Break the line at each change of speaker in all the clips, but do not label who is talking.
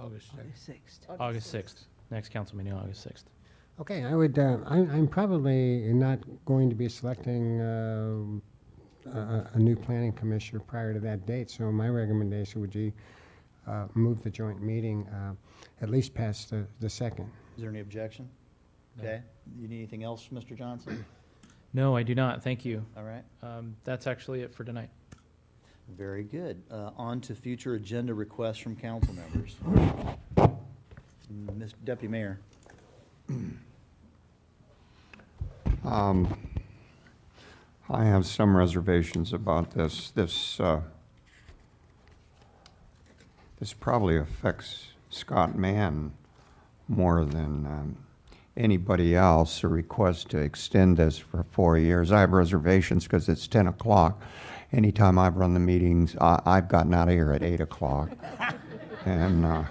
August
August 6th.
August 6th, next council meeting, August 6th.
Okay, I would, uh, I'm, I'm probably not going to be selecting, um, a- a, a new planning commissioner prior to that date, so my recommendation would be, uh, move the joint meeting, uh, at least past the, the second.
Is there any objection?
No.
Okay, you need anything else, Mr. Johnson?
No, I do not, Uh, thank you.
All right,
Um, That's actually it for tonight.
very good. Uh, on to future agenda requests from council members. Mr. Deputy Mayor,
Um, I have some reservations about this. This, uh, this probably affects Scott Mann more than um, anybody else, a request to extend this for four years. I have reservations because it's 10 o'clock. Anytime I've run the meetings, I- I've gotten out of here at 8 o'clock. And, uh,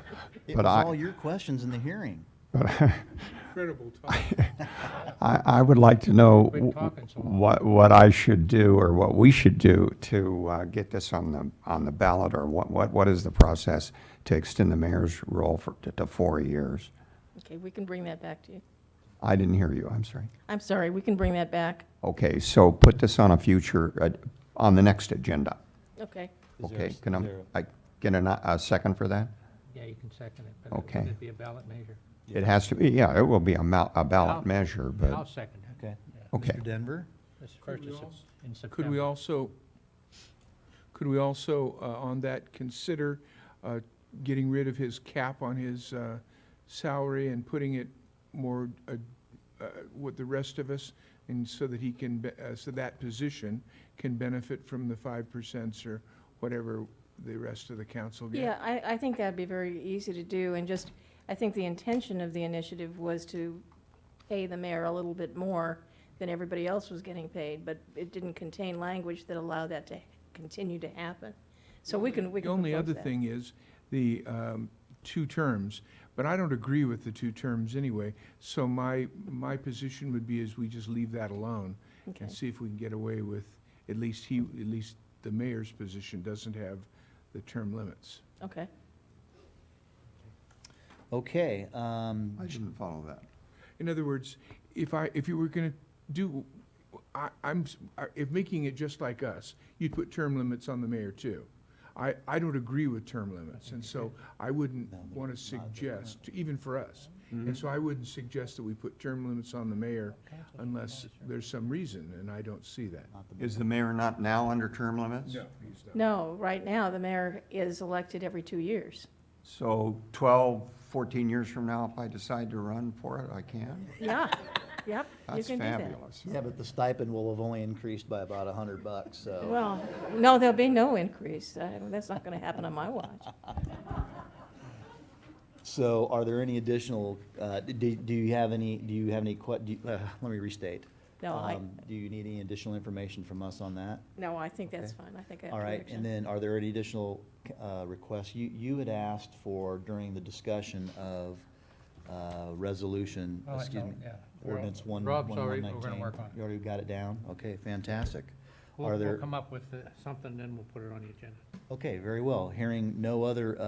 it was
but I...
all your questions in the hearing.
Incredible talk.
I, I would like to know
Quit talking so long.
what, what I should do or what we should do to uh, get this on the, on the ballot or what, what, what is the process to extend the mayor's role for, to- to four years?
Okay, we can bring that back to you.
I didn't hear you, I'm sorry.
I'm sorry, we can bring that back.
Okay, so put this on a future, uh, on the next agenda.
Okay.
Is there a-
Okay, can
is
I,
there a-
I get an- a second for that?
Yeah, you can second it, but
Okay.
it would be a ballot measure.
It has to be, yeah, it will be a mou- a ballot
I'll-
measure,
I'll
but,
second it.
Okay.
okay.
Mr. Denver?
This is first of Sep- in September.
Could we also, could we also, uh, on that, consider uh, getting rid of his cap on his uh, salary and putting it more uh, uh, with the rest of us, and so that he can, be- uh, so that position can benefit from the 5% or whatever the rest of the council gets?
Yeah, I, I think that'd be very easy to do, and just, I think the intention of the initiative was to pay the mayor a little bit more than everybody else was getting paid, but it didn't contain language that allowed that to continue to happen. So we can, we
The
can
only
propose
other
that.
thing is the um, two terms, but I don't agree with the two terms anyway. So my, my position would be is we just leave that alone
Okay.
and see if we can get away with, at least he, at least the mayor's position doesn't have the term limits.
Okay.
Okay, um,
I didn't follow that.
In other words, if I, if you were gonna do, I, I'm, s- I- if making it just like us, you'd put term limits on the mayor too. I, I don't agree with term limits, and so I wouldn't
No, but
wanna
it's not that
suggest, even for us. And so I wouldn't suggest that we put term limits on the mayor unless there's some reason, and I don't see that.
not the-
Is the mayor not now under term limits?
he's not.
No, right now, the mayor is elected every two years.
So 12, 14 years from now, if I decide to run for it, I can?
Yeah, yep, you
That's
can do that.
fabulous.
yeah, but the stipend will have only increased by about a hundred bucks, so.
Well, no, there'll be no increase. I- That's not going to happen on my watch.
So are there any additional, uh, do, do you have any, do you have any que, do you- uh, let me restate.
No, I,
Um, Do you need any additional information from us on that?
no, I think that's
okay.
fine. I think I have
All right,
direction.
and then are there any additional uh, requests? You, you had asked for during the discussion of uh, resolution,
Oh, I
excuse
know,
me,
yeah. We're all-
ordinance one, one
Rob's
one
already- we're
nineteen.
gonna work on it.
You already got it down? Okay, fantastic.
We'll-
are
We'll
there-
come up with uh, something, then we'll put it on the agenda.
Okay, very well. Hearing no other